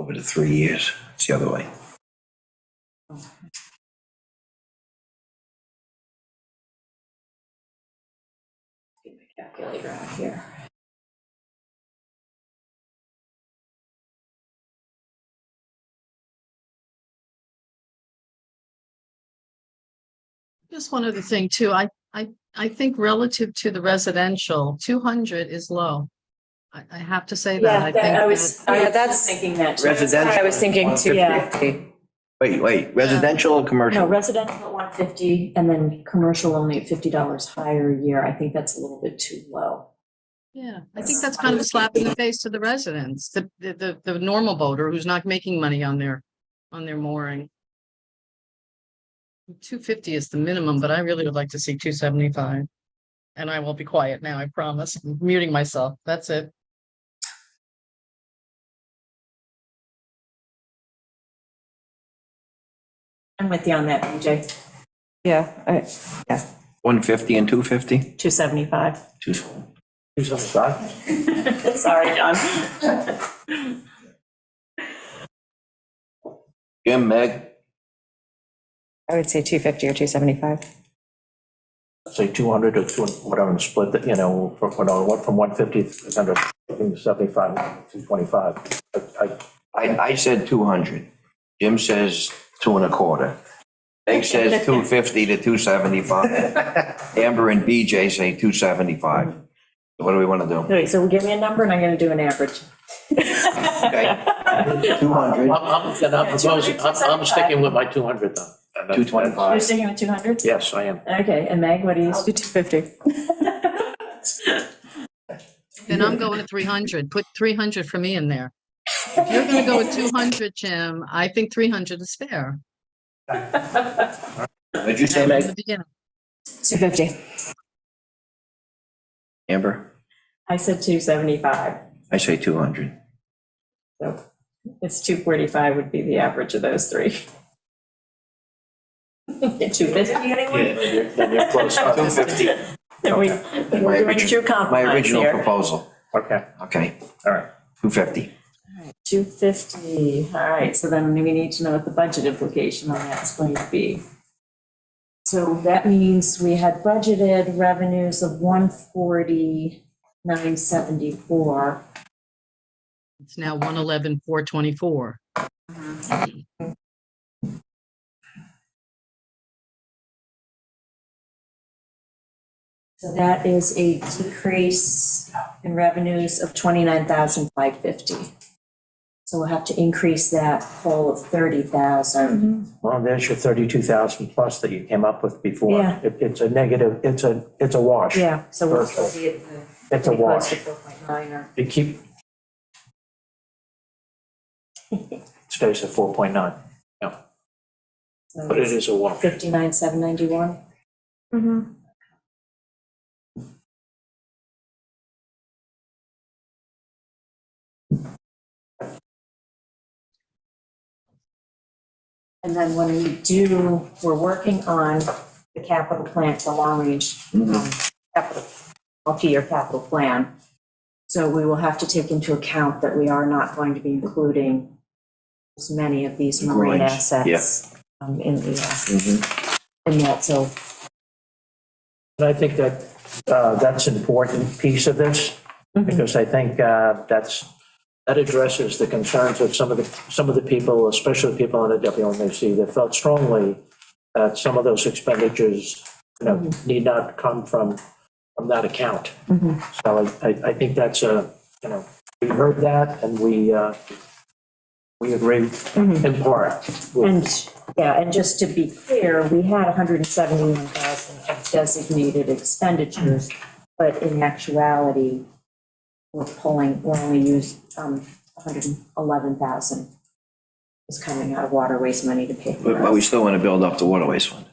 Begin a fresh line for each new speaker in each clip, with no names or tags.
over to three years. It's the other way.
Get my Calculator out here.
Just one other thing too, I, I, I think relative to the residential, two hundred is low. I, I have to say that, I
Yeah,
think.
that- I was,
that-
I
Yeah,
was
that's-
thinking that too.
Residential.
I was thinking too, yeah.
150. Wait, wait, residential or
No,
commercial?
residential at 150 and then commercial only at $50 higher a year. I think that's a little bit too low.
Yeah, I think that's kind of a slap in the face to the residents, the, the, the, the normal voter who's not making money on their, on their mooring. Two fifty is the minimum, but I really would like to see two seventy-five. And I will be quiet now, I promise, I'm muting myself, that's it.
I'm with you on that, BJ.
Yeah, I,
150 and 250?
275.
275?
Sorry, John.
Jim, Meg,
I would say 250 or 275.
say 200 or 200, whatever, and split, the- you know, from, you know, what, from 150 to 300, I think it's 75, 225. I- I-
I, I said 200. Jim says two and a quarter. Meg says 250 to 275. Amber and BJ say 275. So What do we want to do?
All right, so give me a number and I'm going to do an average.
Okay. 200,
I'm, I'm, and I'm proposing, I'm, I'm sticking with my 200 though. And that's-
225.
You're sticking with 200?
Yes, I am.
Okay, and Meg, what do you?
Do 250.
Then I'm going to three hundred, put three hundred for me in there. If you're gonna go with two hundred, Jim, I think three hundred is fair.
What'd you say,
From
Meg?
the beginning.
250.
Amber?
I said 275.
I say 200.
So it's 245 would be the average of those three. 250, anyone?
Then you're close.
250.
Are we-
My
We're doing
original-
true compromise
My
here.
original proposal.
Okay,
Okay,
all right.
250.
250, all right, so then we need to know what the budget implication on that's going to be. So that means we had budgeted revenues of 140,974.
It's now one eleven, four twenty-four.
So that is a decrease in revenues of 29,550. So we'll have to increase that whole of 30,000.
Well, there's your 32,000 plus that you came up with before.
Yeah.
It, it's a negative, it's a, it's a wash.
Yeah, so we'll
Virtual.
still be at the.
It's a
pretty close
wash.
to 4.9 or.
You keep. Stays at 4.9,
so
but it is a wash.
59,791. And then when we do, we're working on the capital plan, the long-range um, capital, multi-year capital plan. So we will have to take into account that we are not going to be including as many of these marine
Moorings,
assets um, in the, uh,
Mhm.
in that, so
And I think that, uh, that's an important piece of this, because I think uh, that's, that addresses the concerns of some of the, some of the people, especially people on the WMAC, that felt strongly that some of those expenditures, you know, need not come from, from that account.
Mhm.
So I- I, I think that's a, you know, we heard that, and we, uh, we agree in part with
And, yeah, and just to be clear, we had 171,000 of designated expenditures, but in actuality, we're pulling, we're only used, um, 111,000 is coming out of water waste money to pay for
But but
us.
we still want to build up the waterways fund.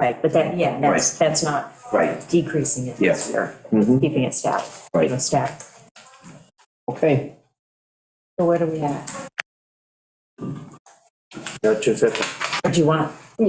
Right, but that, yeah, that's, that's not
Right.
decreasing it this year,
Mhm.
keeping it static,
Right.
you know, static.
Okay.
So where do we at?
the 250.
What do you want?